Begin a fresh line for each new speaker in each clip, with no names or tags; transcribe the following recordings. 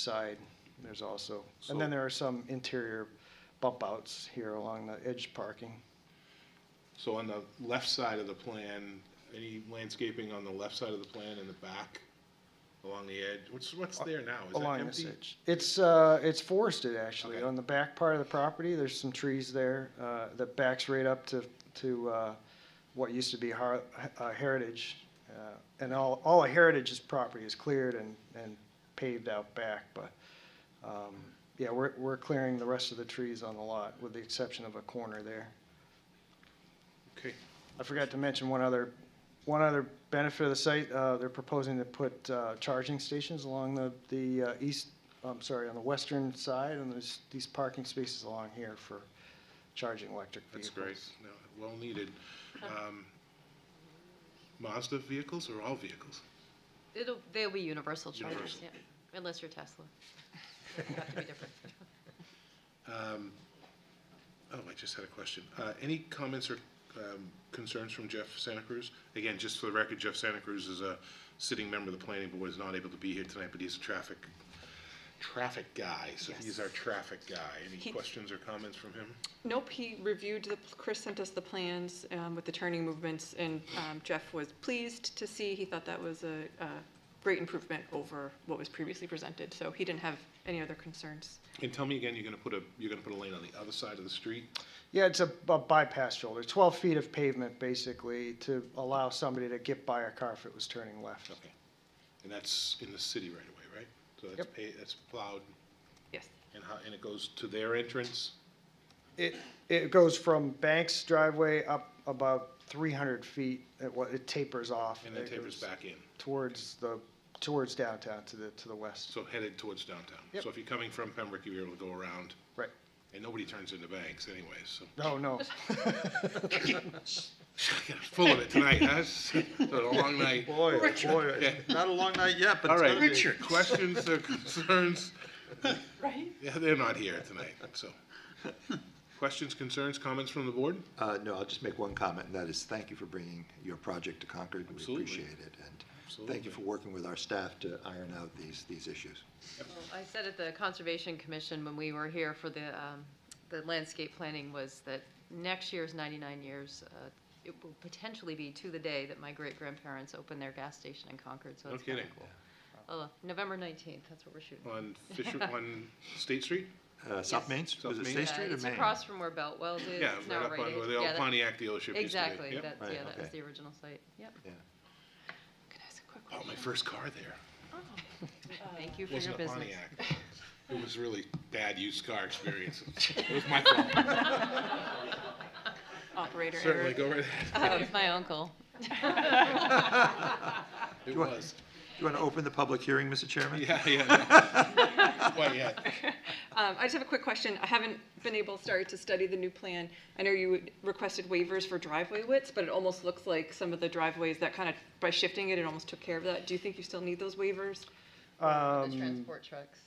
side, there's also,
So-
and then there are some interior bump outs here along the edge parking.
So on the left side of the plan, any landscaping on the left side of the plan in the back, along the edge, what's, what's there now? Is that
along this
empty?
edge. It's, uh, it's forested actually.
Okay.
On the back part of the property, there's some trees there, uh, that backs right up to, to, uh, what used to be har- uh, heritage. Uh, And all, all of heritage's property is cleared and, and paved out back, but, um, yeah, we're, we're clearing the rest of the trees on the lot with the exception of a corner there.
Okay,
I forgot to mention one other, one other benefit of the site, uh, they're proposing to put, uh, charging stations along the, the, uh, east, I'm sorry, on the western side, and there's these parking spaces along here for charging electric
that's
vehicles.
great, no, well needed. Um, Mazda vehicles or all vehicles?
It'll, they'll be universal chargers,
Universal.
yeah, unless you're Tesla. It'll have to be different.
Um, Oh, I just had a question. Uh, Any comments or um, concerns from Jeff Santa Cruz? Again, just for the record, Jeff Santa Cruz is a sitting member of the planning board, is not able to be here tonight, but he's a traffic, traffic guy, so he's our traffic guy. Any
He-
questions or comments from him?
Nope, he reviewed the, Chris sent us the plans um, with the turning movements, and um, Jeff was pleased to see, he thought that was a a great improvement over what was previously presented, so he didn't have any other concerns.
And tell me again, you're gonna put a, you're gonna put a lane on the other side of the street?
Yeah, it's a a bypass shoulder, twelve feet of pavement basically to allow somebody to get by a car if it was turning left.
Okay. And that's in the city right away, right? So that's
Yep.
pa- that's plowed,
Yes,
and how, and it goes to their entrance?
It, it goes from Banks driveway up about three hundred feet, it, wa- it tapers off.
And then
It
tapers
goes
back in,
Towards the, towards downtown, to the, to the west.
so headed towards downtown.
Yep.
So if you're coming from Pembroke, you're able to go around,
Right.
and nobody turns into banks anyways, so.
No, no.
Full of it tonight, huh? It's been a long night.
Boy, boy,
Yeah.
not a long night yet, but
All
it's
right.
gonna be.
Questions or concerns?
right?
Yeah, they're not here tonight, so. Questions, concerns, comments from the board?
Uh, no, I'll just make one comment, and that is thank you for bringing your project to Concord. We
Absolutely.
appreciate it, and thank
Absolutely.
you for working with our staff to iron out these, these issues.
Well, I said at the Conservation Commission when we were here for the, um, the landscape planning was that next year's 99 years, uh, it will potentially be to the day that my great-grandparents opened their gas station in Concord, so
No
it's kind of
kidding.
cool. Oh, November 19th, that's what we're shooting.
On Fisher, on State Street?
Uh, South Main, Street- was
South
it
Main?
State
Yeah,
Street or Main?
It's across from where Beltwell's is,
Yeah,
it's
right
now
up
right.
on where the
yeah,
old
that-
Pontiac dealership used to be.
Exactly,
Yep.
that's,
Right,
yeah, that was
okay.
the original site, yep.
Yeah.
Can I ask a quick
Bought my
question?
first car there.
Thank you for your
Wasn't a
business.
Pontiac. It was really bad used car experience. It was my fault.
Operator
Certainly,
error.
go right ahead.
That was my uncle.
It
Do I-
was.
You want to open the public hearing, Mr. Chairman?
Yeah, yeah. no. Quite yet.
Um, I just have a quick question. I haven't been able, sorry, to study the new plan. I know you requested waivers for driveway widths, but it almost looks like some of the driveways that kind of, by shifting it, it almost took care of that. Do you think you still need those waivers?
The
Um,
transport trucks,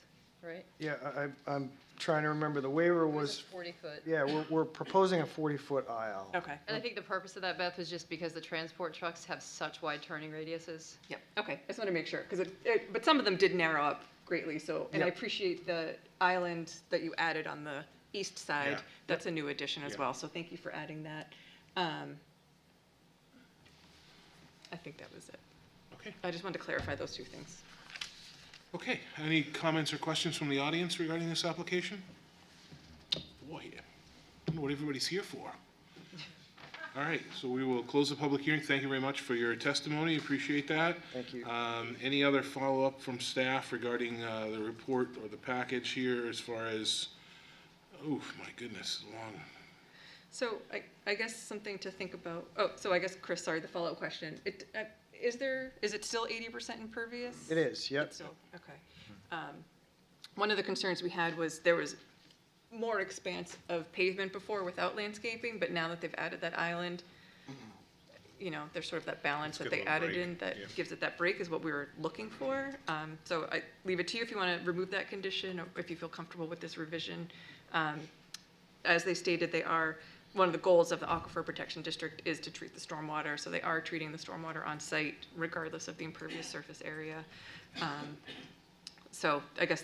right?
yeah, I, I- I'm trying to remember, the waiver was,
40-foot.
yeah, we're, we're proposing a forty-foot aisle.
Okay.
And I think the purpose of that, Beth, was just because the transport trucks have such wide turning radiuses.
Yep, okay, I just want to make sure, because it, it, but some of them did narrow up greatly, so, and I
Yep.
appreciate the island that you added on the east
Yeah.
side. That's a new addition
Yeah.
as well, so thank you for adding that. Um, I think that was it.
Okay.
I just wanted to clarify those two things.
Okay, any comments or questions from the audience regarding this application? Boy, I don't know what everybody's here for. All right, so we will close the public hearing. Thank you very much for your testimony, appreciate that.
Thank you.
Um, Any other follow-up from staff regarding uh, the report or the package here as far as, oh, my goodness, long.
So I, I guess something to think about, oh, so I guess, Chris, sorry, the follow-up question. It, uh, is there, is it still eighty percent impervious?
It is, yep.
It's still- Okay. Um, One of the concerns we had was there was more expanse of pavement before without landscaping, but now that they've added that island, you know, there's sort of that balance
Let's
that
give
they
it a
added
break,
in that
yeah.
gives it that break is what we were looking for. Um, So I leave it to you if you want to remove that condition or if you feel comfortable with this revision. Um, as they stated, they are, one of the goals of the Aquifer Protection District is to treat the stormwater, so they are treating the stormwater on site regardless of the impervious surface area. Um, So I guess